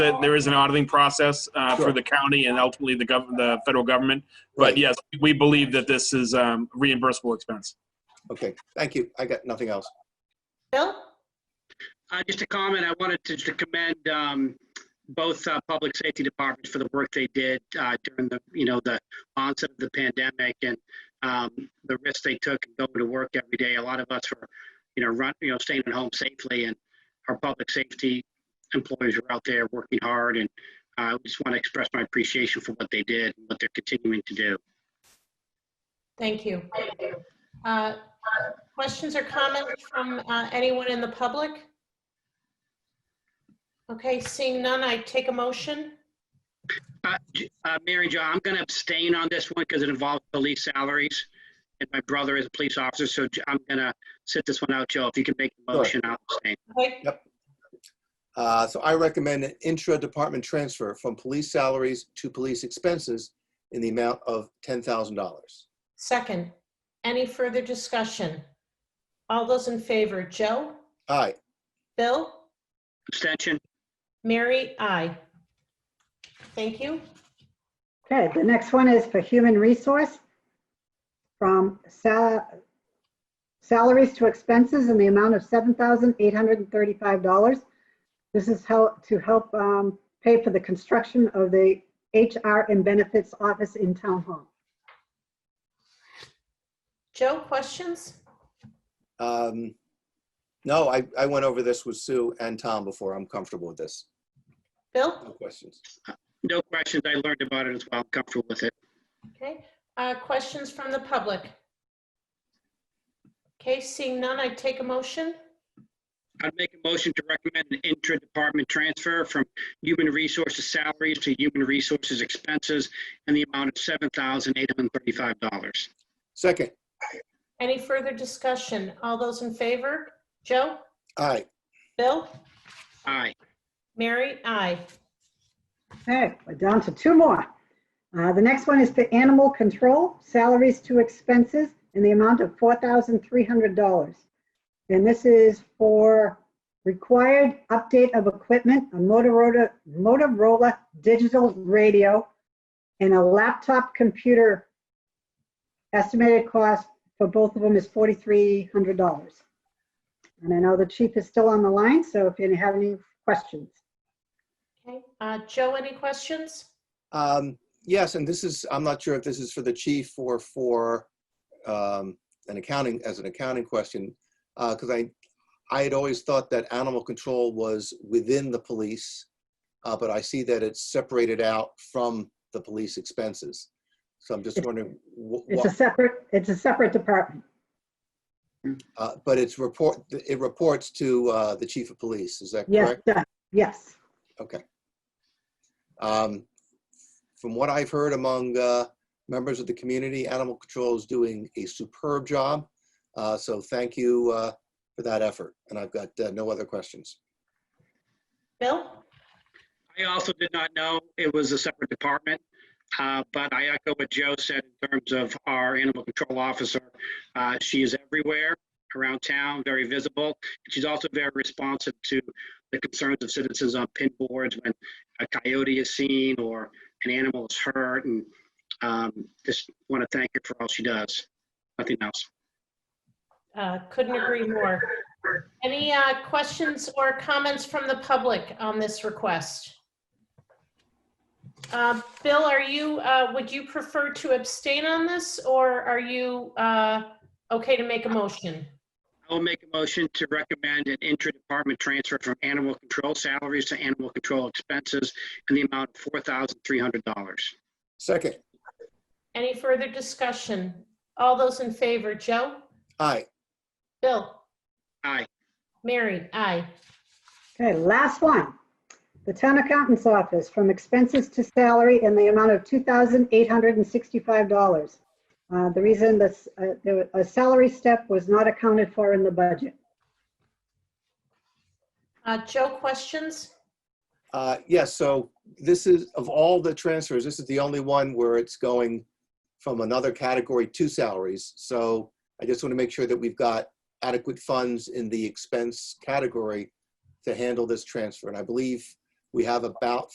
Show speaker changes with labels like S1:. S1: that there is an auditing process uh, for
S2: Sure.
S1: the county and ultimately the gov, the federal government. But
S2: Right.
S1: yes, we believe that this is um, reimbursable expense.
S2: Okay, thank you. I got nothing else.
S3: Bill?
S4: Uh, just a comment, I wanted to, to commend, um, both, uh, public safety departments for the work they did, uh, during the, you know, the onset of the pandemic and, um, the risks they took in going to work every day. A lot of us were, you know, run, you know, staying at home safely and our public safety employees were out there working hard and uh, I just want to express my appreciation for what they did and what they're continuing to do.
S3: Thank you. Uh, Questions or comments from uh, anyone in the public? Okay, seeing none, I take a motion.
S4: Uh, J- uh, Mary Jo, I'm going to abstain on this one because it involves police salaries. And my brother is a police officer, so J- I'm going to sit this one out, Joe. If you can make the
S2: Sure.
S4: motion, I'll abstain.
S3: Okay,
S2: Uh, So I recommend an intra-department transfer from police salaries to police expenses in the amount of $10,000.
S3: second. Any further discussion? All those in favor, Joe?
S2: Aye,
S3: Bill?
S4: Abstention?
S3: Mary? Aye. Thank you.
S5: Okay, the next one is for human resource. From sal- salaries to expenses in the amount of $7,835. This is how, to help um, pay for the construction of the HR and benefits office in Town Hall.
S3: Joe, questions?
S2: Um, No, I, I went over this with Sue and Tom before. I'm comfortable with this.
S3: Bill?
S2: No questions.
S4: No questions. I learned about it as well. I'm comfortable with it.
S3: Okay, uh, questions from the public? Okay, seeing none, I take a motion.
S4: I'd make a motion to recommend an intra-department transfer from human resources salaries to human resources expenses in the amount of $7,835.
S2: Second,
S3: Any further discussion? All those in favor? Joe?
S2: aye,
S3: Bill?
S4: Aye.
S3: Mary? Aye.
S5: Okay, we're down to two more. Uh, The next one is for animal control, salaries to expenses in the amount of $4,300. And this is for required update of equipment, a Motorola, Motorola digital radio, and a laptop computer. Estimated cost for both of them is $4,300. And I know the chief is still on the line, so if you have any questions.
S3: Okay, uh, Joe, any questions?
S2: Um, Yes, and this is, I'm not sure if this is for the chief or for um, an accounting, as an accounting question, because I, I had always thought that animal control was within the police, uh, but I see that it's separated out from the police expenses. So I'm just
S5: It's-
S2: wondering, wh-
S5: It's a
S2: what,
S5: separate, it's a separate department.
S2: uh, but it's report, it reports to uh, the chief of police, is that
S5: Yes,
S2: correct?
S5: that- yes.
S2: Okay. Um, From what I've heard among uh, members of the community, Animal Control is doing a superb job. Uh, So thank you uh, for that effort. And I've got uh, no other questions.
S3: Bill?
S4: I also did not know it was a separate department, uh, but I echo what Joe said in terms of our animal control officer. Uh, She is everywhere around town, very visible. She's also very responsive to the concerns of citizens on pin boards when a coyote is seen or an animal is hurt. And um, just want to thank her for all she does. Nothing else.
S3: Uh, Couldn't agree more. Any uh, questions or comments from the public on this request? Uh, Bill, are you, uh, would you prefer to abstain on this, or are you uh, okay to make a motion?
S4: I will make a motion to recommend an intra-department transfer from animal control salaries to animal control expenses in the amount of $4,300.
S2: Second,
S3: Any further discussion? All those in favor, Joe?
S2: aye,
S3: Bill?
S4: Aye.
S3: Mary? Aye.
S5: Okay, last one. The town accountant's office from expenses to salary in the amount of $2,865. Uh, The reason this, uh, the- a salary step was not accounted for in the budget.
S3: Uh, Joe, questions?
S2: Uh, Yes, so this is, of all the transfers, this is the only one where it's going from another category to salaries. So I just want to make sure that we've got adequate funds in the expense category to handle this transfer. And I believe We have about